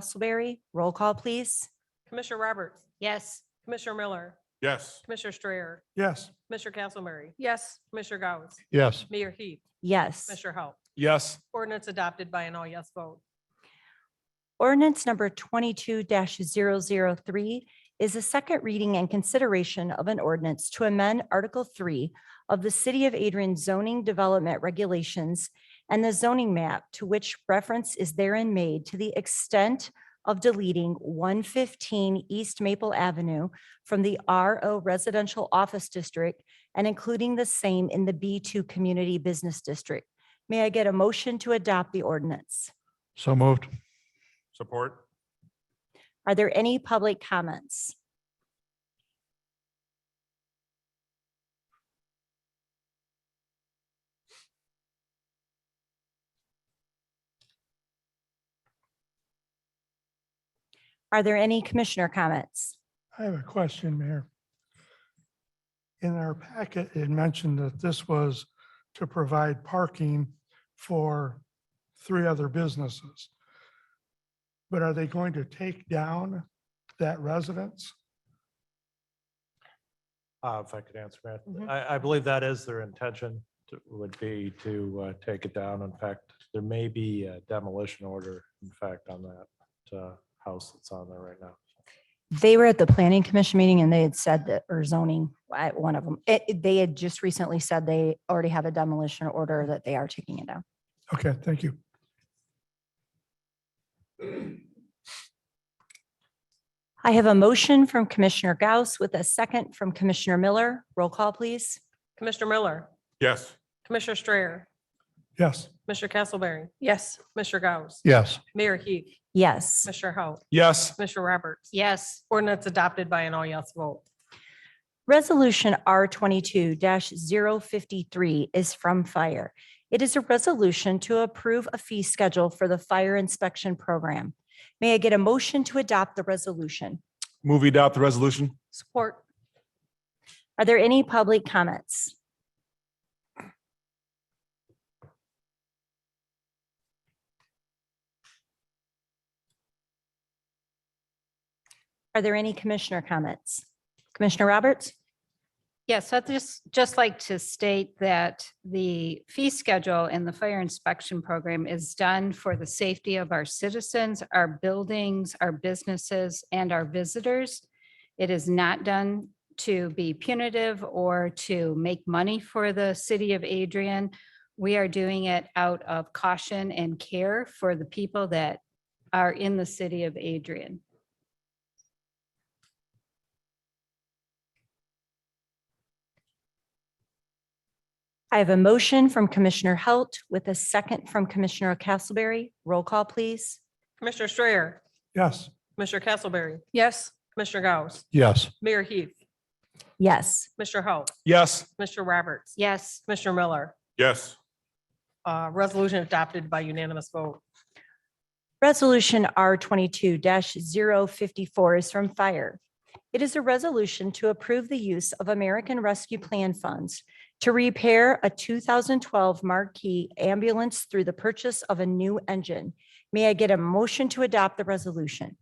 Castleberry. Roll call, please. Commissioner Roberts, Yes. Commissioner Miller, Yes. Commissioner Strayer, Yes. Commissioner Castleberry, Yes. Commissioner Gauss, Yes. Mayor Heath, Yes. Commissioner Hou. Yes. Ordinance adopted by an all yes vote. Ordinance number twenty-two 3 is a second reading and consideration of an ordinance to amend Article Three of the City of Adrian zoning development regulations and the zoning map to which reference is therein made to the extent of deleting one fifteen East Maple Avenue from the RO Residential Office District and including the same in the B two Community Business District. May I get a motion to adopt the ordinance? So moved. Support. Are there any public comments? Are there any commissioner comments? I have a question, Mayor. In our packet, it mentioned that this was to provide parking for three other businesses. But are they going to take down that residence? Uh, If I could answer that, Mhm. I, I believe that is their intention to- would be to uh, take it down. In fact, there may be a demolition order, in fact, on that uh, house that's on there right now. They were at the planning commission meeting and they had said that, or zoning, I- one of them, it- it- they had just recently said they already have a demolition order that they are taking it down. Okay, thank you. I have a motion from Commissioner Gauss with a second from Commissioner Miller. Roll call, please. Commissioner Miller, Yes. Commissioner Strayer, Yes. Mr. Castleberry, Yes. Mr. Gauss, Yes. Mayor Heath, Yes. Mr. Hou, Yes. Mr. Roberts. Yes. Ordinance adopted by an all yes vote. Resolution R twenty-two 53 is from fire. It is a resolution to approve a fee schedule for the fire inspection program. May I get a motion to adopt the resolution? Move we adopt the resolution. Support. Are there any public comments? Are there any commissioner comments? Commissioner Roberts? Yes, I'd just, just like to state that the fee schedule in the fire inspection program is done for the safety of our citizens, our buildings, our businesses, and our visitors. It is not done to be punitive or to make money for the city of Adrian. We are doing it out of caution and care for the people that are in the city of Adrian. I have a motion from Commissioner Halt with a second from Commissioner Castleberry. Roll call, please. Commissioner Strayer, Yes. Mr. Castleberry, Yes. Commissioner Gauss, Yes. Mayor Heath, Yes. Mr. Hou, Yes. Mr. Roberts. Yes. Commissioner Miller, Yes. uh, resolution adopted by unanimous vote. Resolution R twenty-two 54 is from Fire. It is a resolution to approve the use of American Rescue Plan funds to repair a two thousand twelve marquee ambulance through the purchase of a new engine. May I get a motion to adopt the resolution?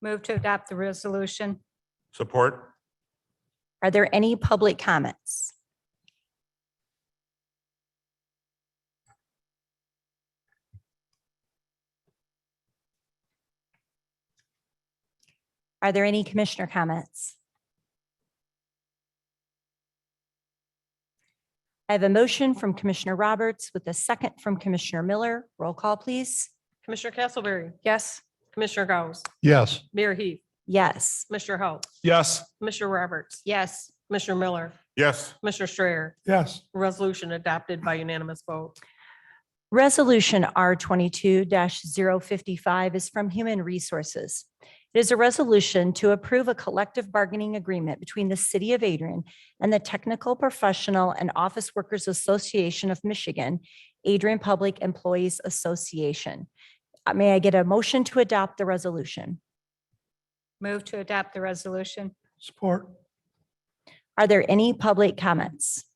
Move to adopt the resolution. Support. Are there any public comments? Are there any commissioner comments? I have a motion from Commissioner Roberts with a second from Commissioner Miller. Roll call, please. Commissioner Castleberry, Yes. Commissioner Gauss, Yes. Mayor Heath, Yes. Mr. Hou, Yes. Mr. Roberts, Yes. Commissioner Miller, Yes. Mr. Strayer, Yes. resolution adopted by unanimous vote. Resolution R twenty-two 55 is from Human Resources. It is a resolution to approve a collective bargaining agreement between the City of Adrian and the Technical Professional and Office Workers Association of Michigan, Adrian Public Employees Association. Uh, May I get a motion to adopt the resolution? Move to adopt the resolution. Support. Are there any public comments?